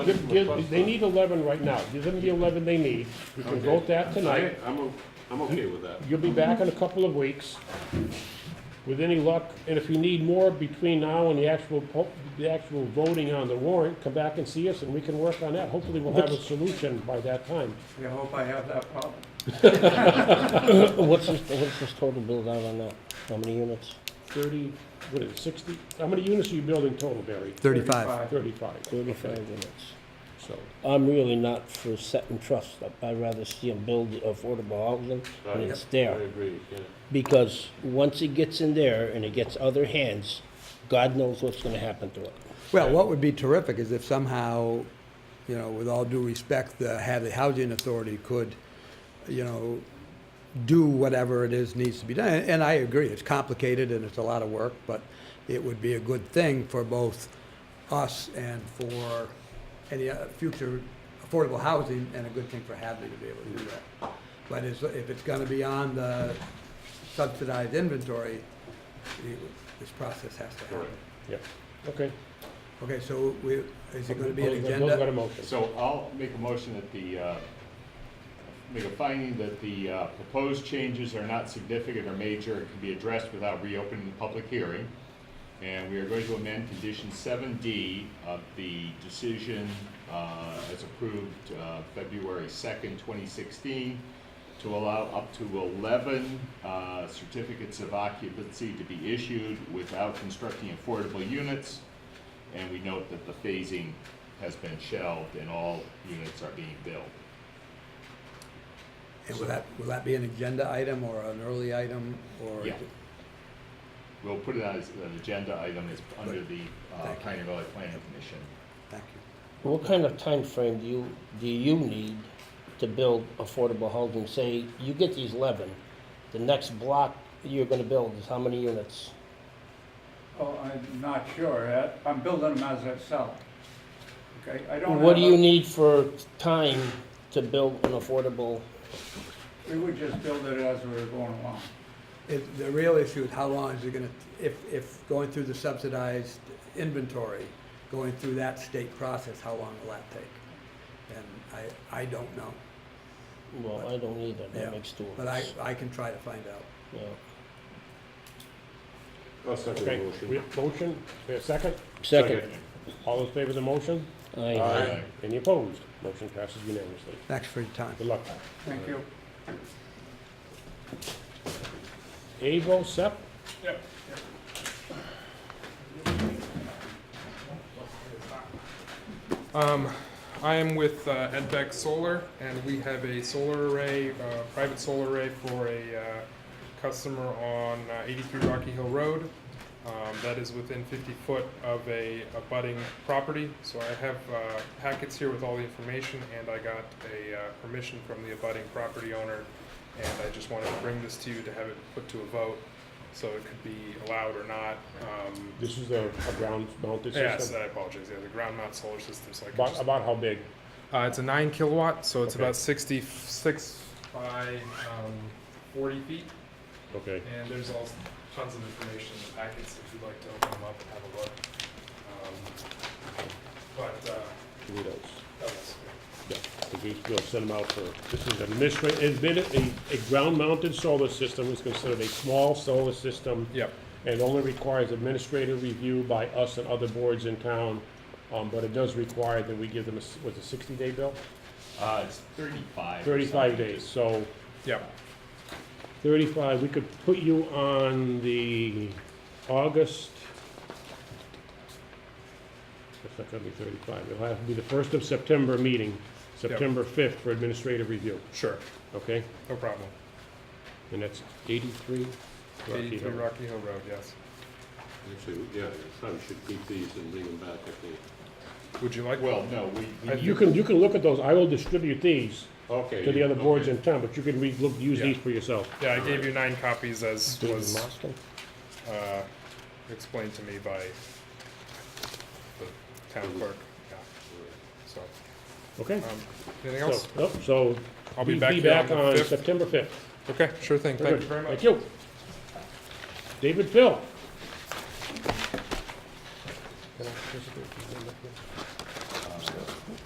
Give- give- They need 11 right now. Give them the 11 they need. We can vote that tonight. I- I'm, o- I'm okay with that. You'll be back in a couple of weeks. With any luck, and if you need more between now and the actual, po- the actual voting on the warrant, come back and see us and we can work on that. Hopefully, we'll have a solution by that time. I hope I have that problem. What's this, what's this total build out on that? How many units? 30, what is it, 60? How many units are you building total, Barry? 35. 35. okay. Thirty-five units. So, I'm really not for set and trust. I- I'd rather see them build affordable housing when it's I there. agree, yeah. Because once it gets in there and it gets other hands, God knows what's gonna happen to it. Well, what would be terrific is if somehow, you know, with all due respect, the Hadley Housing Authority could, you know, do whatever it is needs to be done. And I agree, it's complicated and it's a lot of work, but it would be a good thing for both us and for any uh, future affordable housing, and a good thing for Hadley to be able to do that. But it's- if it's going to be on the subsidized inventory, it- this process has to happen. yeah, okay. Okay, so we, is it gonna be an Those- Those got a agenda? motion. So I'll make a motion that the, uh, make a finding that the uh, proposed changes are not significant or major and can be addressed without reopening the public hearing. And we are going to amend condition seven D of the decision uh, as approved uh, February second, twenty sixteen, to allow up to eleven uh, certificates of occupancy to be issued without constructing affordable units. And we note that the phasing has been shelved and all units are being built. And will that, will that be an agenda item or an early item or? Yeah. We'll put it as an agenda item, it's under the uh, Thank you. Pioneer Valley Planning Commission. Thank you. What kind of time frame do you, do you need to build affordable housing? Say, you get these eleven, the next block you're gonna build is how many units? Oh, I'm not sure. I- I'm building them as I sell. Okay, I don't. What do have you a- need for time to build an affordable? We would just build it as we were going along. If, the real issue is how long is it gonna, if, if going through the subsidized inventory, going through that state process, how long will that take? And I, I don't know, Well, I don't either, Yeah, that makes two of but I, us. I can try to find out. Yeah. i Okay, we have motion, we have second? Second. All those favor of the motion? Aye. Any opposed? Motion passes unanimously. Thanks for your time. Good luck. Thank you. Avo, Sep? Um, I am with uh, Edbeck Solar, and we have a solar array, uh, private solar array for a uh, customer on uh, 83 Rocky Hill Road. Um, that is within 50 foot of a abutting property. So I have uh, packets here with all the information, and I got a uh, permission from the abutting property owner, and I just wanted to bring this to you to have it put to a vote, so it could be allowed or not. Um, This is a, a ground mounted Yes, system? I apologize. Yeah, the ground mount solar system. So I can About, just- about how big? uh, it's a nine kilowatt, so it's Okay. about sixty-six by um, forty feet, Okay, and there's all tons of information in the packets if you'd like to open them up and have a look. Um, but uh, give me those. that was Yeah, 'cause we- We'll send them out for, this is administrative, it's been a, a ground mounted solar system is considered a small solar system yep, and only requires administrative review by us and other boards in town. Um, but it does require that we give them, a s- what's a sixty day bill? Uh, it's thirty-five. or Thirty-five something. days, so yep. 35, we could put you on the August, that's not gonna be 35, it'll have to be the first of September meeting, September 5th for administrative review, Sure, okay? no problem. And that's 83 Rocky Eighty-three Hill. Rocky Hill Road, yes. Actually, yeah, you probably should keep these and bring them back if they, Would you like? Well, no, we, we I- need- You can, you can look at those, I will distribute these okay. to the other boards okay. in town, but you can re, look, use Yeah. these for yourself. Yeah, I gave you nine copies as David was Mostel? uh, explained to me by the town clerk. Yeah. So, Okay? um, anything So, else? nope, so. I'll be back here on the on 5th. September 5th. Okay, sure thing. Very Thank you good. very much. Thank you. David Phil.